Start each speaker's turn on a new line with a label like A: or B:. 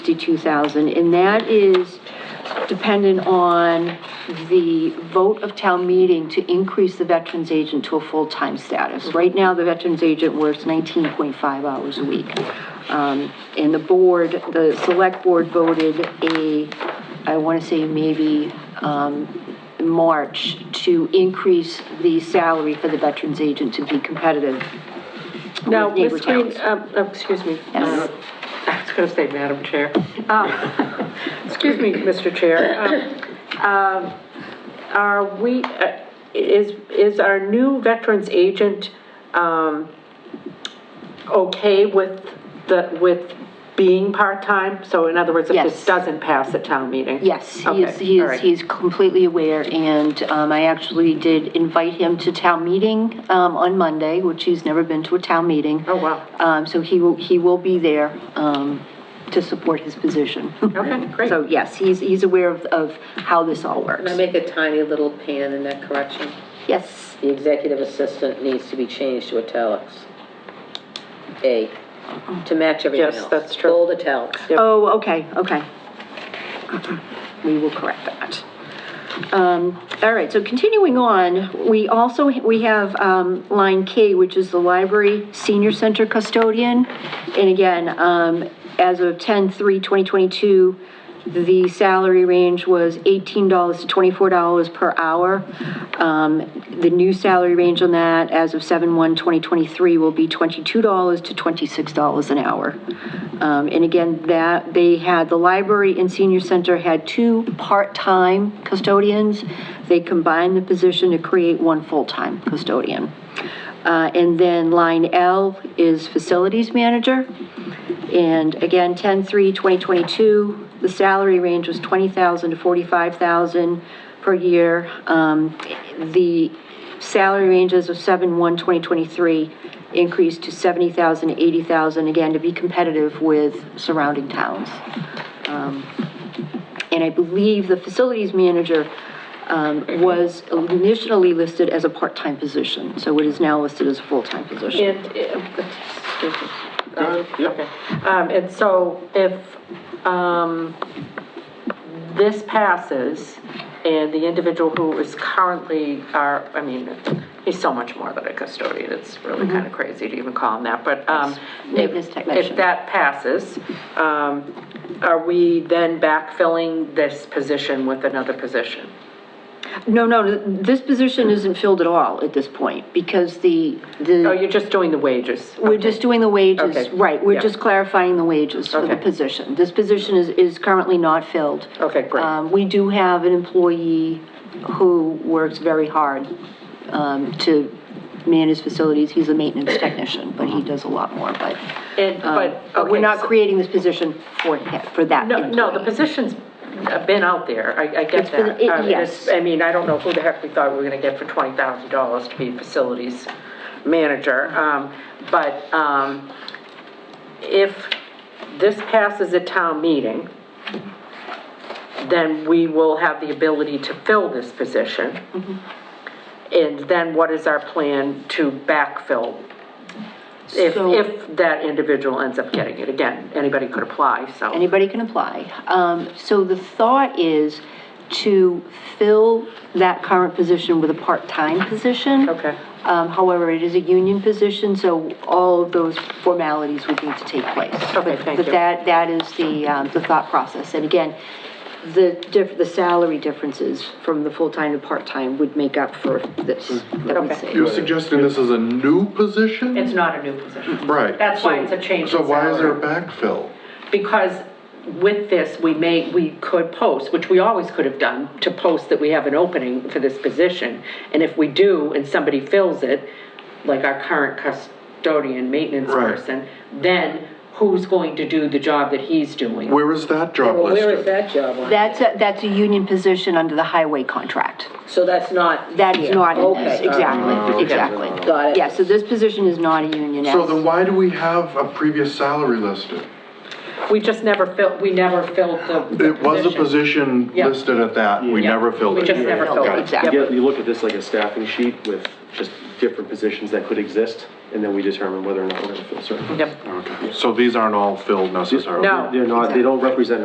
A: 62,000, and that is dependent on the vote of town meeting to increase the veterans agent to a full-time status. Right now, the veterans agent works 19.5 hours a week. Um, And the board, the select board voted a, I want to say maybe um, March, to increase the salary for the veterans agent to be competitive
B: Now,
A: with neighbor
B: Ms. Green,
A: towns.
B: um, uh, excuse me.
A: Yes.
B: Uh, I was going to say, Madam Chair. Uh, Excuse me, Mr. Chair. Um, um, Are we, uh, is, is our new veterans agent um, okay with the, with being part-time? So in other words, if
A: Yes.
B: this doesn't pass at town meeting?
A: Yes, he is,
B: Okay,
A: he
B: all
A: is,
B: right.
A: he's completely aware, and um, I actually did invite him to town meeting um, on Monday, which he's never been to a town meeting.
B: Oh, wow.
A: Um, So he will, he will be there um, to support his position.
B: Okay, great.
A: So yes, he's, he's aware of, of how this all works.
C: Can I make a tiny little pan in that correction?
A: Yes,
C: The executive assistant needs to be changed to italics. A, to match everything else.
B: Yes, that's true.
C: Bold italics.
A: oh, okay, okay. Uh-uh. We will correct that. Um, All right, so continuing on, we also, we have um, line K, which is the library senior center custodian. And again, um, as of 10/3/2022, the salary range was $18 to $24 per hour. Um, The new salary range on that, as of 7/1/2023, will be $22 to $26 an hour. Um, And again, that, they had, the library and senior center had two part-time custodians. They combined the position to create one full-time custodian. Uh, And then line L is facilities manager. And again, 10/3/2022, the salary range was 20,000 to 45,000 per year. Um, The salary ranges of 7/1/2023 increased to 70,000 to 80,000, again, to be competitive with surrounding towns. Um, And I believe the facilities manager um, was initially listed as a part-time position, so it is now listed as a full-time position.
B: And, uh, excuse me. Um, and so if, um, this passes and the individual who is currently our, I mean, he's so much more than a custodian, it's really kind of crazy to even call him that, but, um, if,
A: Mm-hmm. Maintenance technician.
B: if that passes, um, are we then backfilling this position with another position?
A: No, no, this position isn't filled at all at this point, because the,
B: Oh,
A: the,
B: you're just doing the wages?
A: we're just doing the wages,
B: Oh, Okay.
A: right, we're
B: Yeah.
A: just clarifying the wages for the
B: Okay.
A: position. This position is, is currently not filled.
B: Okay, great.
A: Um, we do have an employee who works very hard, um, to man his facilities, he's a maintenance technician, but he does a lot more, but,
B: And,
A: um,
B: but,
A: but we're
B: okay,
A: not
B: so-
A: creating this position for him, for that
B: No, no, the
A: employee.
B: position's been out there, I, I
A: It's
B: get
A: been-
B: that.
A: it-
B: Um,
A: yes.
B: it's- I mean, I don't know who the heck we thought we were gonna get for twenty thousand dollars to be facilities manager, um, but, um, if this passes at town meeting, then we will have the ability to fill this position.
A: Mm-hmm.
B: And then what is our plan to backfill? If,
A: So-
B: if that individual ends up getting it, again, anybody could apply, so.
A: Anybody can apply. Um, So the thought is to fill that current position with a part-time position.
B: Okay.
A: Um, However, it is a union position, so all of those formalities would need to take place.
B: Okay, thank
A: But
B: you.
A: that, that is the, um, the thought process. And again, the, diff- the salary differences from the full-time to part-time would make up for this, that we
B: Mm-hmm. Okay.
A: say.
D: You're suggesting this is a new position?
B: It's not a new position.
D: Right.
B: That's why
D: So-
B: it's a change in
D: So why is there a
B: salary.
D: backfill?
B: Because with this, we may, we could post, which we always could have done, to post that we have an opening for this position. And if we do, and somebody fills it, like our current custodian maintenance
D: Right.
B: person, then who's going to do the job that he's doing?
D: Where is that job
C: Well, where is
D: listed?
C: that job on?
A: That's, a- that's a union position under the highway contract.
C: So that's not.
A: That is
C: here.
A: not in this,
C: Okay, all right.
A: exactly, exactly.
C: Got it.
A: Yeah, so this position is not a union.
D: So then why do we have a previous salary listed?
B: We just never filled, we never filled the. the
D: It was a position
B: Yeah.
D: listed at that, we
B: Yeah.
D: never filled
B: We
D: it.
B: just never filled
D: Got
B: it.
A: Exactly.
E: You get- you look at this like a staffing sheet with just different positions that could exist. and then we determine whether or not we're gonna fill certain.
B: Yep.
D: Okay. So these aren't all filled necessarily?
B: No.
E: They're not, they don't represent